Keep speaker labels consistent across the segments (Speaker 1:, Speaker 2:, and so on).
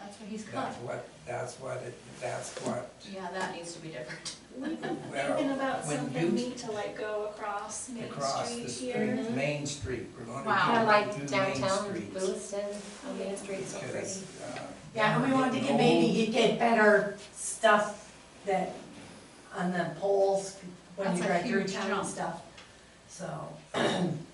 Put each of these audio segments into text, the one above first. Speaker 1: That's what he's got.
Speaker 2: That's what, that's what, it that's what,
Speaker 1: Yeah, that needs to be different.
Speaker 3: We've been
Speaker 2: Well,
Speaker 3: thinking about
Speaker 2: when
Speaker 3: something
Speaker 2: you-
Speaker 3: neat to like go across Main
Speaker 2: across
Speaker 3: Street
Speaker 2: the
Speaker 3: here.
Speaker 2: street, Main Street,
Speaker 1: Wow.
Speaker 2: we're gonna
Speaker 4: Kinda
Speaker 2: do,
Speaker 4: like
Speaker 2: do Main
Speaker 4: downtown
Speaker 2: Street.
Speaker 4: Lewiston, on Main Street, so pretty.
Speaker 2: Because, uh,
Speaker 5: Yeah, we wanted to get, maybe you get better stuff that, on the poles, when you
Speaker 1: That's a
Speaker 5: drive through
Speaker 1: huge
Speaker 5: town
Speaker 1: jump.
Speaker 5: and stuff, so.
Speaker 2: and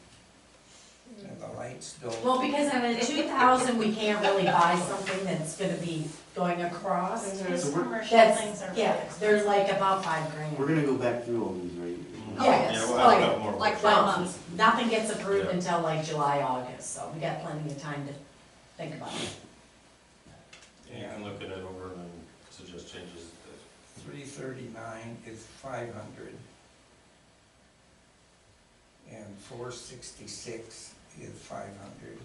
Speaker 2: the lights don't,
Speaker 5: Well, because on a two thousand, we can't really buy something that's gonna be going across.
Speaker 3: His
Speaker 6: So we're-
Speaker 3: commercial things
Speaker 5: That's,
Speaker 3: are.
Speaker 5: yeah, there's like about five grand.
Speaker 6: We're gonna go back through all these, right?
Speaker 1: Oh,
Speaker 5: Yes,
Speaker 7: Yeah, well, I've got more.
Speaker 1: Like five
Speaker 5: Well,
Speaker 1: months.
Speaker 5: nothing gets approved
Speaker 7: Yeah.
Speaker 5: until like July, August, so we got plenty of time to think about it.
Speaker 7: Yeah, You can look at it over and then suggest changes.
Speaker 2: three thirty-nine is five hundred. And four sixty-six is five hundred.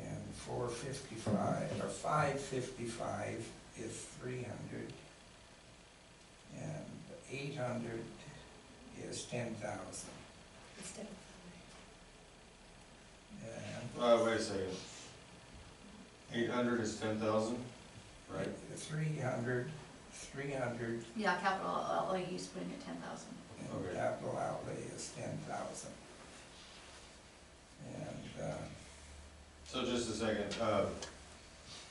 Speaker 2: And four fifty-five, or five fifty-five is three hundred. And eight hundred is ten thousand. And
Speaker 7: Uh, wait a second. Eight hundred is ten thousand, right?
Speaker 2: Three hundred, three hundred,
Speaker 1: Yeah, capital outlay, he's putting at ten thousand.
Speaker 2: and
Speaker 7: Okay.
Speaker 2: capital outlay is ten thousand. And, uh,
Speaker 7: So just a second, uh,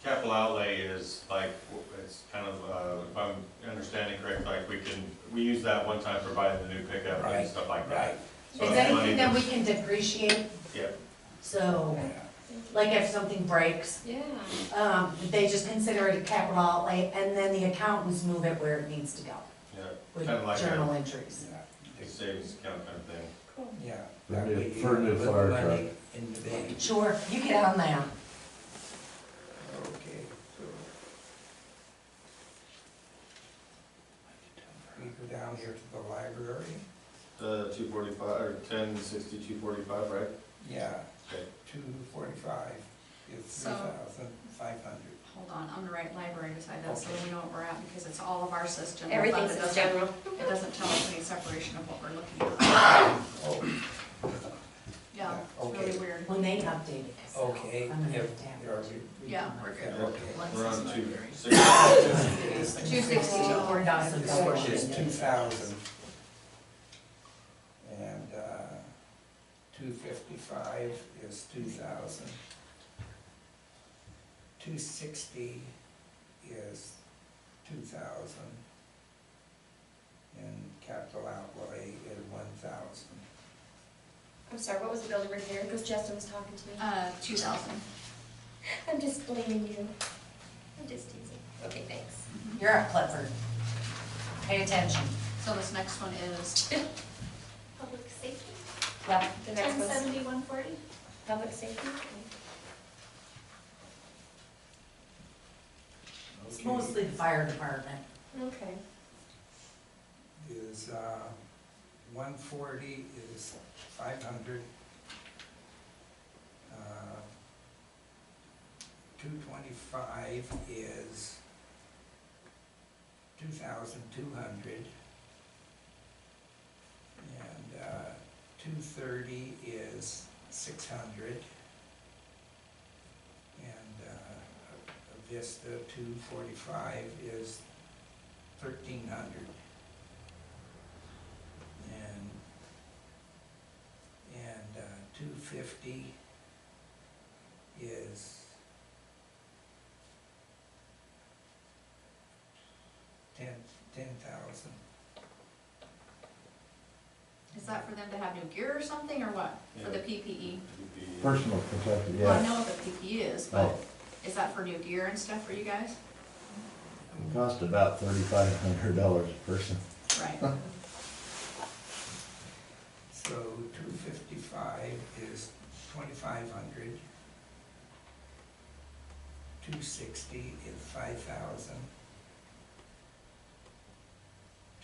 Speaker 7: capital outlay is like, w- it's kind of, uh, if I'm understanding correct, like we can, we use that one time for buying the new pickup
Speaker 2: Right,
Speaker 7: and stuff like
Speaker 2: right,
Speaker 7: that. So
Speaker 5: Is
Speaker 7: it's money
Speaker 5: anything that we
Speaker 7: that's-
Speaker 5: can depreciate,
Speaker 7: Yeah,
Speaker 5: so,
Speaker 2: yeah,
Speaker 5: like if something breaks,
Speaker 4: Yeah.
Speaker 5: um, they just consider it a capital outlay, and then the accountants move it where it needs to go,
Speaker 7: yeah,
Speaker 5: with
Speaker 7: kind of like
Speaker 5: journal
Speaker 7: a
Speaker 5: entries.
Speaker 2: yeah.
Speaker 7: savings account kind of thing.
Speaker 2: Yeah.
Speaker 8: For
Speaker 2: that
Speaker 8: new-
Speaker 2: way you
Speaker 8: for new
Speaker 2: put
Speaker 8: fire
Speaker 2: money In the bank,
Speaker 5: Sure, you get on that.
Speaker 2: okay, so. We go down here to the library,
Speaker 7: The two forty-five, or ten sixty-two forty-five, right?
Speaker 2: yeah,
Speaker 7: Okay.
Speaker 2: two forty-five is three
Speaker 1: So-
Speaker 2: thousand five hundred.
Speaker 1: Hold on, I'm gonna write library beside that, so
Speaker 2: Okay.
Speaker 1: we know what we're at, because it's all of our system. but it
Speaker 4: Everything's
Speaker 1: doesn't-
Speaker 4: in general.
Speaker 1: It doesn't tell us any separation of what we're looking at.
Speaker 2: Oh,
Speaker 1: Yeah, it's really
Speaker 2: Okay.
Speaker 1: weird.
Speaker 5: When they update it. so
Speaker 2: okay,
Speaker 5: I'm gonna
Speaker 2: Oh, yeah,
Speaker 5: have to have
Speaker 2: yeah,
Speaker 5: it.
Speaker 2: we-
Speaker 1: Yeah, we're
Speaker 2: yeah,
Speaker 1: good.
Speaker 2: okay.
Speaker 7: We're on two
Speaker 1: Two sixty-two.
Speaker 5: Four thousand dollars.
Speaker 2: Which is two thousand. And, uh, two fifty-five is two thousand. Two sixty is two thousand. And capital outlay is one thousand.
Speaker 4: I'm sorry, what was the bill number here? Because Justin was talking to me.
Speaker 1: Uh, two thousand.
Speaker 4: I'm just blaming you. I'm just teasing. Okay, thanks.
Speaker 5: You're at Clifford. Pay attention.
Speaker 1: So this next one is,
Speaker 3: Public safety,
Speaker 4: Yep. The next
Speaker 3: ten
Speaker 4: one's
Speaker 3: seventy-one forty.
Speaker 4: public safety.
Speaker 5: It's mostly the fire department.
Speaker 4: Okay.
Speaker 2: is, uh, one forty is five hundred. Uh, Two twenty-five is two thousand two hundred. And, uh, two thirty is six hundred. And, uh, Vista two forty-five is thirteen hundred. And, and uh, two fifty is ten, ten thousand.
Speaker 1: is that for them to have new gear or something, or what? For the
Speaker 7: Yeah.
Speaker 1: PPE?
Speaker 8: Personal protective,
Speaker 1: Well, I
Speaker 8: yes.
Speaker 1: know what the PPE is, but
Speaker 8: Oh,
Speaker 1: is that for new gear and stuff for you guys?
Speaker 8: it cost about thirty-five hundred dollars a person.
Speaker 1: Right.
Speaker 2: So two fifty-five is twenty-five hundred. Two sixty is five thousand.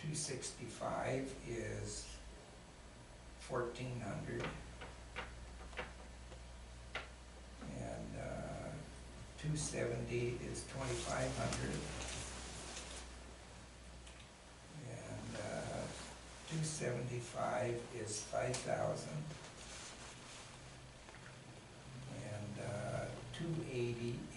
Speaker 2: Two sixty-five is fourteen hundred. And, uh, two seventy is twenty-five hundred. And, uh, Two seventy-five is five thousand. And, uh, two eighty